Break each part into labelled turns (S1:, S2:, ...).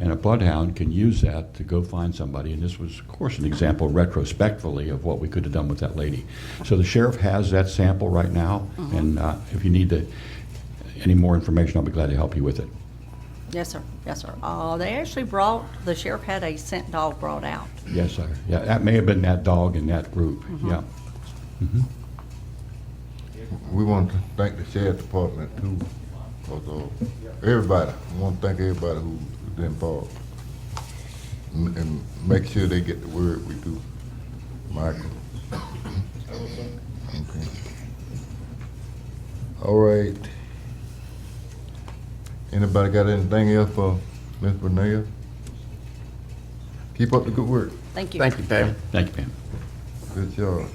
S1: and a bloodhound can use that to go find somebody. And this was, of course, an example retrospectively of what we could have done with that lady. So the sheriff has that sample right now, and uh, if you need to, any more information, I'll be glad to help you with it.
S2: Yes, sir. Yes, sir. Uh, they actually brought, the sheriff had a scent dog brought out.
S1: Yes, sir. Yeah, that may have been that dog in that group. Yeah.
S3: We want to thank the sheriff department too, 'cause, uh, everybody, I want to thank everybody who who's involved. M- And make sure they get the word we do, Michael. Okay. All right. Anybody got anything else for Ms. Bonilla? Keep up the good work.
S2: Thank you.
S4: Thank you, Pam.
S1: Thank you, Pam.
S3: Good job.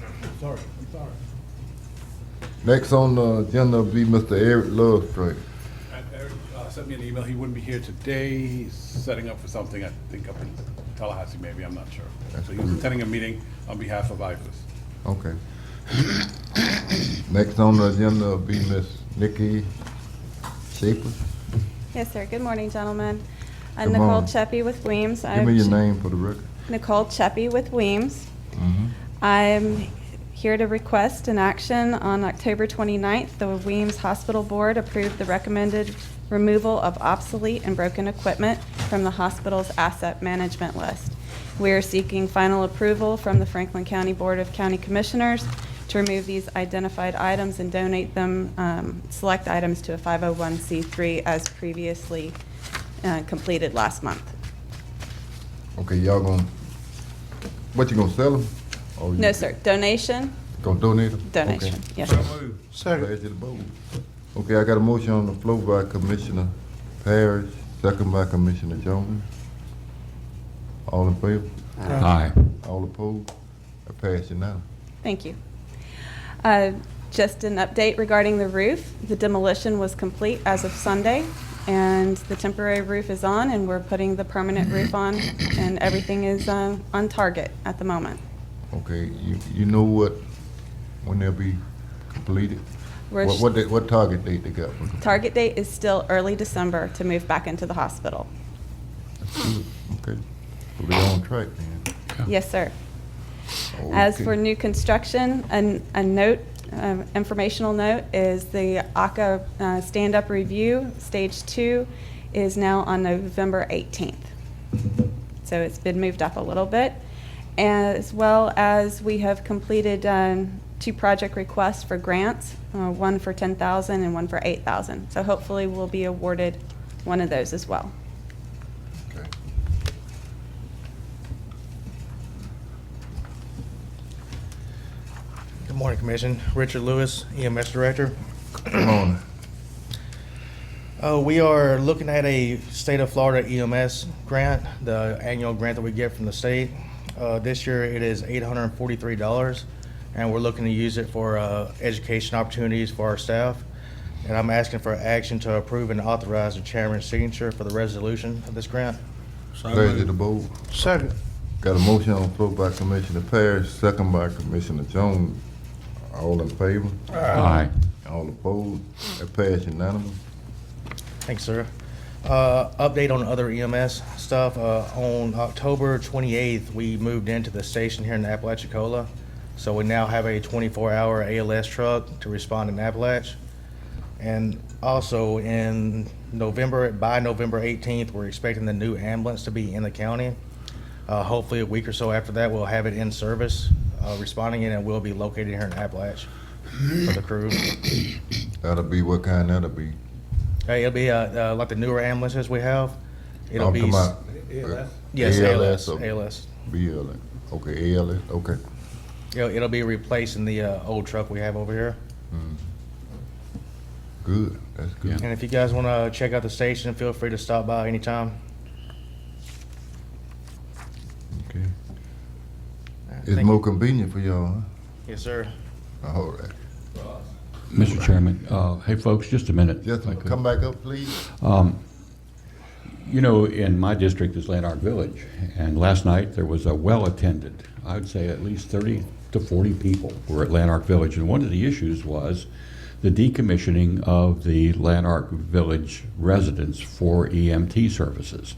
S3: Next on the agenda will be Mr. Eric Lovestrike.
S5: Eric uh, sent me an email, he wouldn't be here today, he's setting up for something, I think up in Tallahassee maybe, I'm not sure. So he was attending a meeting on behalf of IFRS.
S3: Okay. Next on the agenda will be Miss Nikki Shaper.
S6: Yes, sir. Good morning, gentlemen. I'm
S3: Good
S6: Nicole
S3: morning.
S6: Cheppy with Weems.
S3: Give me your name for the record.
S6: Nicole Cheppy with Weems. I'm here to request an action on October 29th. The Weems Hospital Board approved the recommended removal of obsolete and broken equipment from the hospital's asset management list. We are seeking final approval from the Franklin County Board of County Commissioners to remove these identified items and donate them, um, select items to a 501c3 as previously uh, completed last month.
S3: Okay, y'all gonna, what you gonna sell them? Oh,
S6: No, sir, donation,
S3: Gonna donate them?
S6: donation, yes. sir.
S3: Second. Okay, I got a motion on the floor by Commissioner Parrish, second by Commissioner Jones. All in favor?
S1: Aye.
S3: All opposed? I pass unanimous.
S6: Thank you. Uh, Just an update regarding the roof. The demolition was complete as of Sunday, and the temporary roof is on, and we're putting the permanent roof on, and everything is uh, on target at the moment.
S3: Okay, you, you know what, when they'll be completed?
S6: We're
S3: What,
S6: sh-
S3: what, they- what target date they got for them?
S6: Target date is still early December to move back into the hospital.
S3: Okay, so they on track then?
S6: Yes, sir. As
S3: Oh, Okay.
S6: for new construction, an- a note, um, informational note, is the ACA uh, stand-up review, Stage 2, is now on November 18th. So it's been moved up a little bit, as well as we have completed um, two project requests for grants, uh, one for 10,000 and one for 8,000. So hopefully, we'll be awarded one of those as well.
S3: Okay.
S7: Good morning, Commission. Richard Lewis, EMS Director.
S3: Come on.
S7: Uh, we are looking at a state of Florida EMS grant, the annual grant that we get from the state. Uh, this year it is $843, and we're looking to use it for uh, education opportunities for our staff. And I'm asking for action to approve and authorize the chairman's signature for the resolution of this grant.
S3: Pleasure to the board.
S8: Second.
S3: Got a motion on the floor by Commissioner Parrish, second by Commissioner Jones. All in favor?
S1: Aye.
S3: All opposed? That pass unanimous.
S7: Thanks, sir. Uh, Update on other EMS stuff. Uh, On October 28th, we moved into the station here in Apalachicola. So we now have a 24-hour ALS truck to respond in Appalach. And also in November, by November 18th, we're expecting the new ambulance to be in the county. Uh, Hopefully, a week or so after that, we'll have it in service, uh, responding in, and will be located here in Appalach for the crew.
S3: That'll be what kind that'll be.
S7: Hey, it'll be uh, uh, like the newer ambulances we have. It'll
S3: I'm
S7: be
S3: talking
S7: s-
S3: about-
S7: yes, ALS,
S3: or
S7: ALS.
S3: BLS. Okay, ALS, okay.
S7: It'll, it'll be replacing the uh, old truck we have over here.
S3: Good, that's good.
S7: And if you guys want to check out the station, feel free to stop by anytime.
S3: Okay. It's
S7: Thank-
S3: more convenient for y'all,
S7: Yes, sir.
S3: huh? All right.
S1: Mr. Chairman, uh, hey, folks, just a minute.
S3: Just
S1: if I could.
S3: come back up, please.
S1: You know, in my district is Lanark Village, and last night there was a well-attended, I'd say at least 30 to 40 people were at Lanark Village. And one of the issues was the decommissioning of the Lanark Village residents for EMT E services.